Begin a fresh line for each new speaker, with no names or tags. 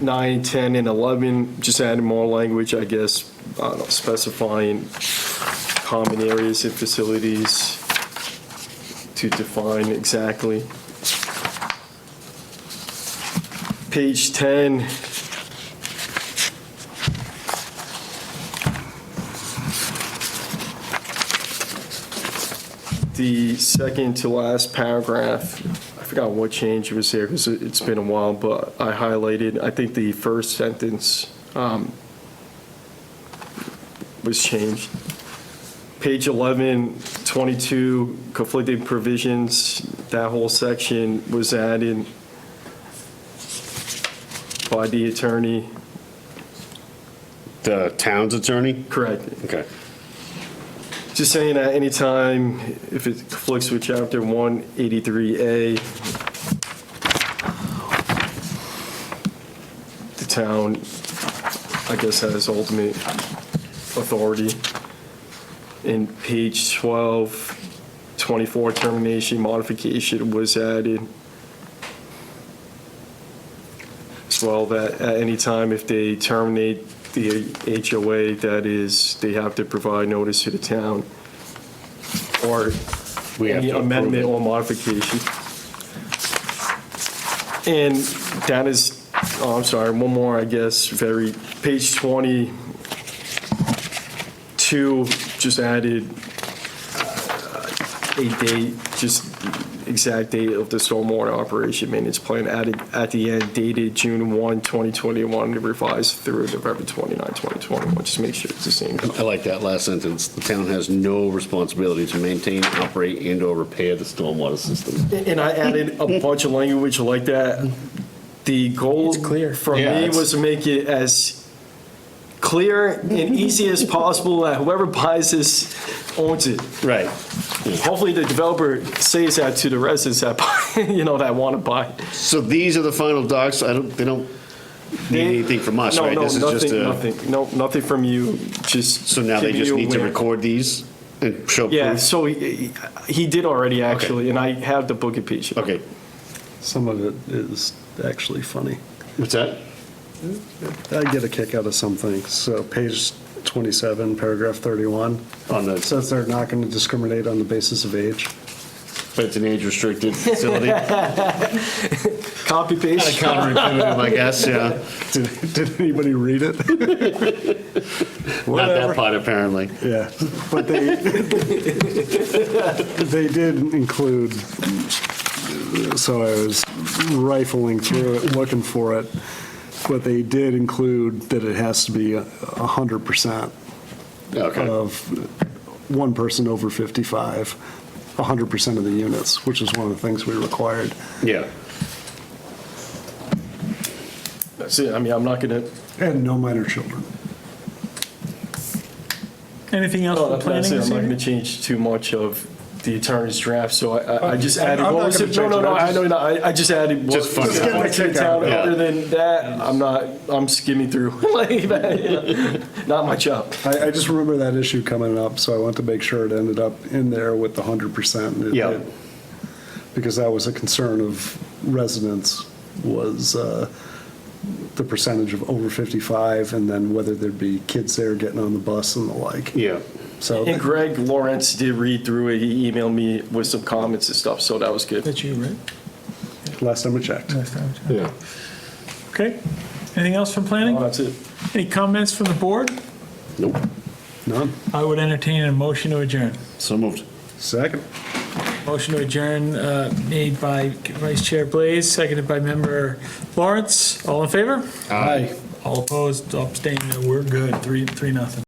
nine, 10, and 11, just adding more language, I guess, I don't know, specifying common areas and facilities to define exactly. Page 10, the second to last paragraph, I forgot what change was there, because it's been a while, but I highlighted, I think the first sentence um, was changed. Page 11, 22, conflicting provisions, that whole section was added by the attorney,
The town's attorney?
correct,
Okay.
Just saying that anytime, if it conflicts with chapter 183A, the town, I guess, has ultimate authority. In page 12, 24 termination modification was added. As well, that at any time if they terminate the HOA, that is, they have to provide notice to the town or
We have
any
to approve
amendment
it.
or modification. And that is, oh, I'm sorry, one more, I guess, very, page 22, just added uh, a date, just exact date of the stormwater operation maintenance plan added at the end dated June 1, 2021, revised through November 29, 2021, just make sure it's the same.
I like that last sentence. The town has no responsibility to maintain, operate, and/or repair the stormwater system.
And I added a bunch of language like that. The goal for
Yeah,
me
it's-
was to make it as clear and easy as possible that whoever buys this owns it.
Right.
Hopefully, the developer says that to the residents that, buy- you know, that want to buy.
So these are the final docs. I don't, they don't need anything from us,
No,
right?
no,
This is just
nothing-
a-
Nothing, no, nothing from you, just.
So now they
giving
just
you
need to
where-
record these and show
Yeah,
proof?
so he he did already, actually, and I have the book and page.
Okay.
Some of it is actually funny.
What's that?
I get a kick out of some things. So page 27, paragraph 31,
On
it
the,
says they're not going to discriminate on the basis of age.
but it's an age-restricted facility?
Copy paste.
Counterintuitive, I guess, yeah.
Did did anybody read it?
Not
Whatever.
that part, apparently.
Yeah, but they, they did include, so I was rifling through it, looking for it, but they did include that it has to be a 100%
Okay.
Um,
of one person over 55, 100% of the units, which is one of the things we required.
Yeah.
That's it, I mean, I'm not going to
And no minor children.
Anything else
No, that- Oh,
for
that's
planning
it.
this
I'm not going to
evening?
change too much of the attorney's draft, so I- I, I just
I'm-
added,
I'm
what
not
was
gonna
it? No,
change
no,
it.
no,
I'm
I know, you're not. I, I just added. what-
Just fun Just getting
my kick
to
out
town.
of
it.
Other
Yeah.
than that, I'm not, I'm skimming through, like, that, yeah. not my job.
I, I just remember that issue coming up, so I want to make sure it ended up in there with the 100%. and it
Yeah.
did. Because that was a concern of residents, was uh, the percentage of over 55, and then whether there'd be kids there getting on the bus and the like.
Yeah.
So,
And Greg Lawrence did read through it, he emailed me with some comments and stuff, so that was good.
That's you, right?
last time we checked.
Last time.
Yeah.
Okay. Anything else from
Oh,
planning?
That's it.
Any comments from the board?
Nope.
None?
I would entertain a motion to adjourn.
So moved.
Second.
Motion to adjourn uh, made by Vice Chair Blaze, seconded by Member Lawrence. All in favor?
Aye.
All opposed, abstaining, we're good, three, three, nothing.